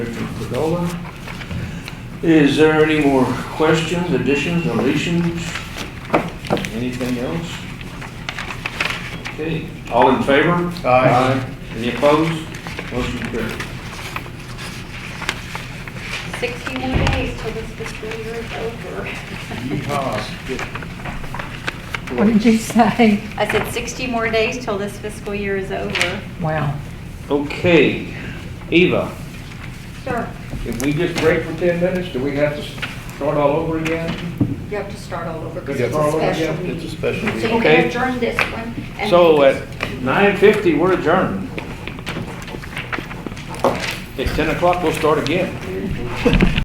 Nolan. Is there any more questions, additions, deletions? Anything else? Okay, all in favor? Aye. Any opposed? Motion carried. 61 days till this fiscal year is over. What did you say? I said 60 more days till this fiscal year is over. Wow. Okay, Eva, Sure, if we just break for ten minutes, do we have to start all over again? you have to start all over because it's a special It's a special So meeting. you Okay. can adjourn this one. and- So at nine fifty, we're adjourned. At ten o'clock, we'll start again.